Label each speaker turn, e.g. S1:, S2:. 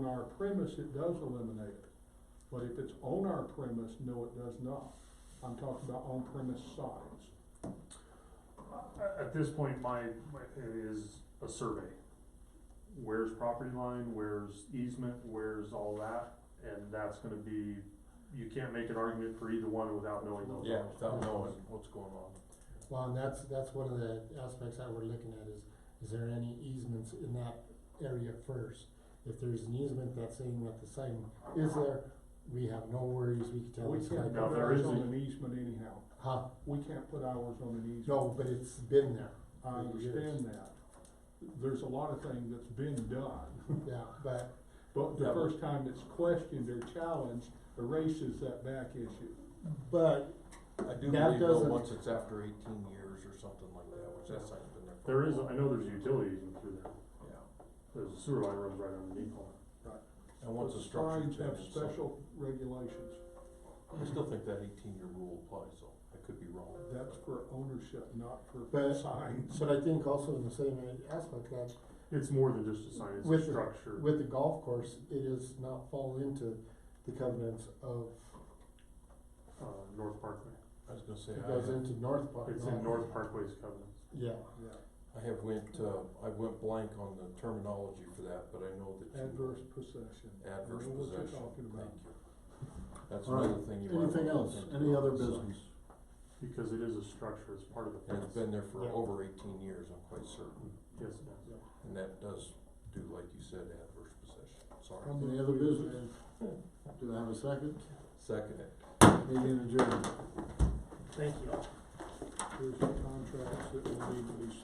S1: our premise, it does eliminate it. But if it's on our premise, no, it does not. I'm talking about on premise signs.
S2: At, at this point, my, my, it is a survey. Where's property line, where's easement, where's all that, and that's gonna be, you can't make an argument for either one without knowing those.
S3: Yeah,
S2: numbers.
S3: without knowing what's going on.
S4: Well, and that's, that's one of the aspects that we're looking at is, is there any easements in that area first? If there's an easement that's saying that the sign is there, we have no worries, we can tell
S1: We
S4: this guy.
S1: can't put
S2: Now, there
S1: ours
S2: is
S1: on
S2: a-
S1: an easement anyhow.
S4: Huh,
S1: We can't put ours on an easement.
S4: no, but it's been there,
S1: I understand that. There's a lot of things that's been done,
S4: yeah, but,
S1: but the
S3: Yeah, but-
S1: first time it's questioned or challenged erases that back issue.
S4: but,
S3: I do
S4: That
S3: believe though,
S4: doesn't-
S3: once it's after eighteen years or something like that, which that sign's been there. for
S2: There
S3: a
S2: is,
S3: while.
S2: I know there's a utility easement through there,
S3: Yeah,
S2: there's a sewer line runs right underneath all that.
S3: and once the
S1: But
S3: structure's
S1: Signs
S3: been
S1: have
S3: in something,
S1: special regulations.
S3: I still think that eighteen year rule applies though, I could be wrong.
S1: That's for ownership, not for
S4: But-
S1: signs.
S4: but I think also in the same aspect that
S2: It's more than just a sign, it's a
S4: With the-
S2: structure.
S4: with the golf course, it is not fall into the covenants of,
S2: Uh, North Parkway,
S3: I was gonna say,
S4: it
S3: I
S4: goes
S3: have,
S4: into North Park.
S2: it's in North Parkway's covenants.
S4: Yeah,
S1: Yeah,
S3: I have went, uh, I went blank on the terminology for that, but I know that you.
S1: adverse possession.
S3: Adverse
S1: I know what you're
S3: possession,
S1: talking
S3: thank
S1: about.
S3: you. That's
S5: All right.
S3: another thing you might.
S5: Anything
S3: wanna
S5: else,
S3: look into
S5: any
S3: about
S5: other
S3: the signs.
S5: business?
S2: Because it is a structure, it's part of the
S3: And it's
S2: fence.
S3: been there for
S4: Yeah.
S3: over eighteen years, I'm quite certain,
S2: Yes, it is.
S3: and that does do, like you said, adverse possession, sorry,
S4: Um,
S5: Any other business? Do I have a second?
S3: second it.
S5: Meeting adjourned.
S1: There's contracts that will need to be